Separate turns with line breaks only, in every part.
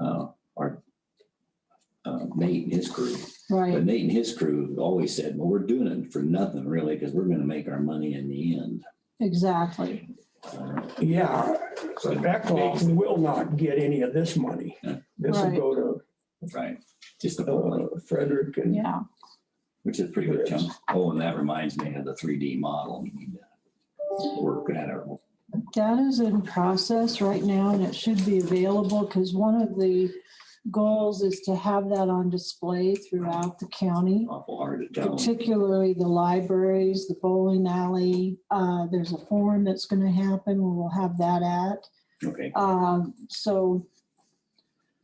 uh, our uh, Nate and his crew. But
right,
Nate and his crew always said, well, we're doing it for nothing really, because we're gonna make our money in the end.
exactly.
Uh,
Yeah, Eckloff will not get any of this money. This will
Right.
go
Right. Just a whole lot,
to uh, Frederick and
Yeah,
which is a pretty good chunk. Oh, and that reminds me of the three D model. We uh, need to Work that out.
that is in process right now and it should be available because one of the goals is to have that on display throughout the county.
Awful hard to tell.
particularly the libraries, the bowling alley. Uh, There's a forum that's going to happen, where we'll have that at.
Okay,
Um, So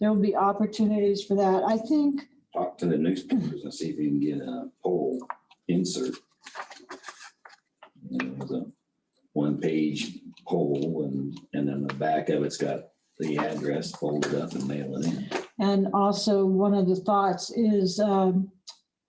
there will be opportunities for that. I think,
talk to the newspapers and see if you can get a poll insert. And it was a one-page poll and, and then the back of it's got the address folded up and mail it in.
and also one of the thoughts is um,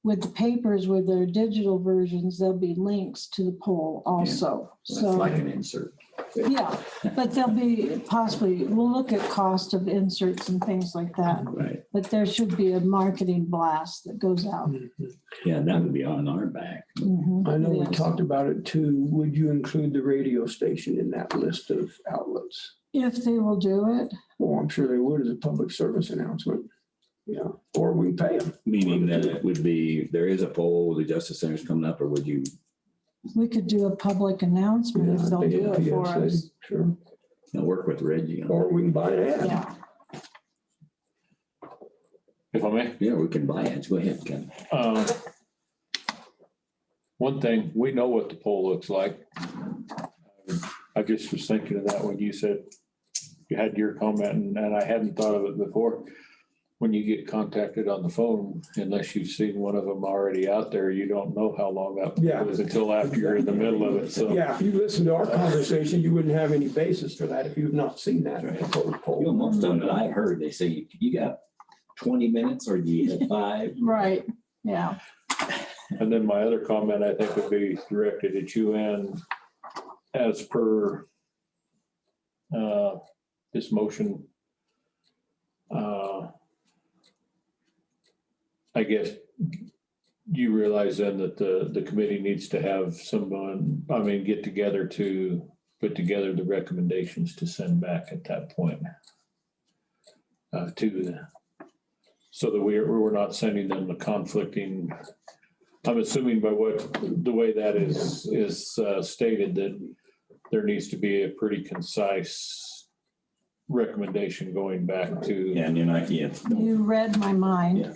with the papers, with their digital versions, there'll be links to the poll also.
It's
So.
like an insert.
Yeah, but there'll be possibly, we'll look at cost of inserts and things like that,
Right.
but there should be a marketing blast that goes out.
Yeah, that would be on our back.
Mhm.
Mm-hmm. I know we
Yes.
talked about it too. Would you include the radio station in that list of outlets?
If they will do it,
Well, I'm sure they would as a public service announcement. Yeah, or we can pay them.
Meaning that it would be, there is a poll, the Justice Center's coming up, or would you,
we could do a public announcement if they'll do it for us.
Sure,
you know, work with Reggie? on-
or we can buy an ad.
Yeah,
if I may.
Yeah, we can buy it. Go ahead, Ken.
Uh, One thing, we know what the pole looks like. I just was thinking of that when you said you had your comment and, and I hadn't thought of it before. When you get contacted on the phone, unless you've seen one of them already out there, you don't know how long that
Yeah.
was until after you're in the middle of it. So
Yeah, if you listen to our
Uh,
conversation, you wouldn't have any basis for that if you've not seen that proposed
You know,
poll.
most of them that I've heard, they say, you- you got twenty minutes or do you have five?
right, yeah,
And then my other comment, I think, would be directed at you and as per uh, this motion. uh, I guess you realize then that the, the committee needs to have someone, I mean, get together to put together the recommendations to send back at that point. uh, To the, so that we're, we're not sending them the conflicting I'm assuming by what, the way that is, is uh, stated, that there needs to be a pretty concise recommendation going back to,
Yeah, and you're not, yeah.
you read my mind
Yeah.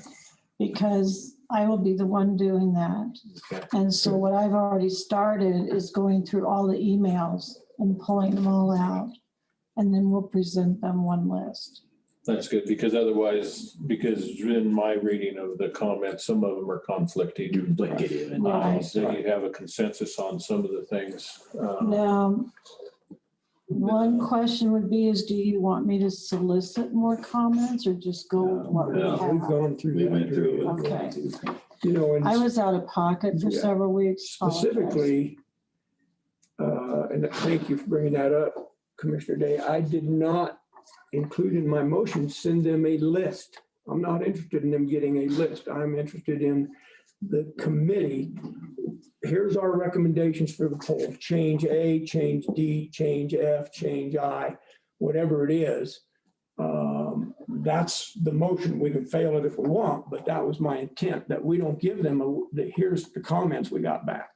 because I will be the one doing that.
Okay.
And so what I've already started is going through all the emails and pulling them all out. And then we'll present them one list.
that's good, because otherwise, because in my reading of the comments, some of them are conflicting.
Duplicative and
Uh,
Right.
So you have a consensus on some of the things. uh,
Now, one question would be is, do you want me to solicit more comments or just go with what we
No,
We've
have?
gone through
we went
that.
through. it.
Okay.
You know,
I
and
was out of pocket for
Yeah.
several weeks. apologize.
specifically, uh, and thank you for bringing that up, Commissioner Day, I did not include in my motion, send them a list. I'm not interested in them getting a list. I'm interested in the committee. Here's our recommendations for the poll. Change A, change D, change F, change I, whatever it is. Um, That's the motion. We can fail it if we want, but that was my intent, that we don't give them, a that here's the comments we got back.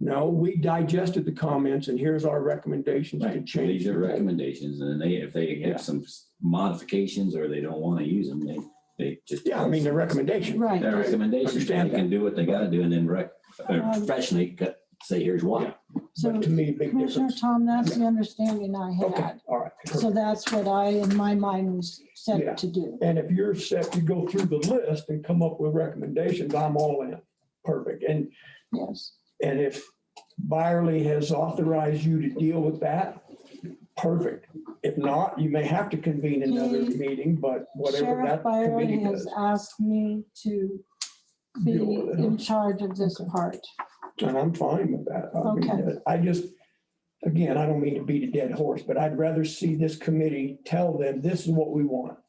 No, we digested the comments and here's our recommendations to
Right,
change.
these
the
are
poll.
recommendations, and they, if they
Yeah.
have some modifications or they don't want to use them, they, they just.
Yeah, I mean, the recommendation.
Right.
Their recommendations, they
Understand that.
can do what they gotta do and then rec, or
Um,
professionally cut- say, here's why.
So
But to me, big
Commissioner
difference.
Tom, that's the understanding I
Okay,
had.
all right.
So that's what I, in my mind, was
Yeah.
set to do.
And if you're set to go through the list and come up with recommendations, I'm all in. Perfect. And,
Yes,
and if Byerly has authorized you to deal with that, perfect. If not, you may have to convene another
He-
meeting, but whatever
Mm-hmm. Sheriff
that
Byron
committee
has
does.
asked me to be
Deal with it.
in charge of this
Okay.
part.
And I'm fine with that. I mean, uh,
Okay.
I just, again, I don't mean to beat a dead horse, but I'd rather see this committee tell them, this is what we want.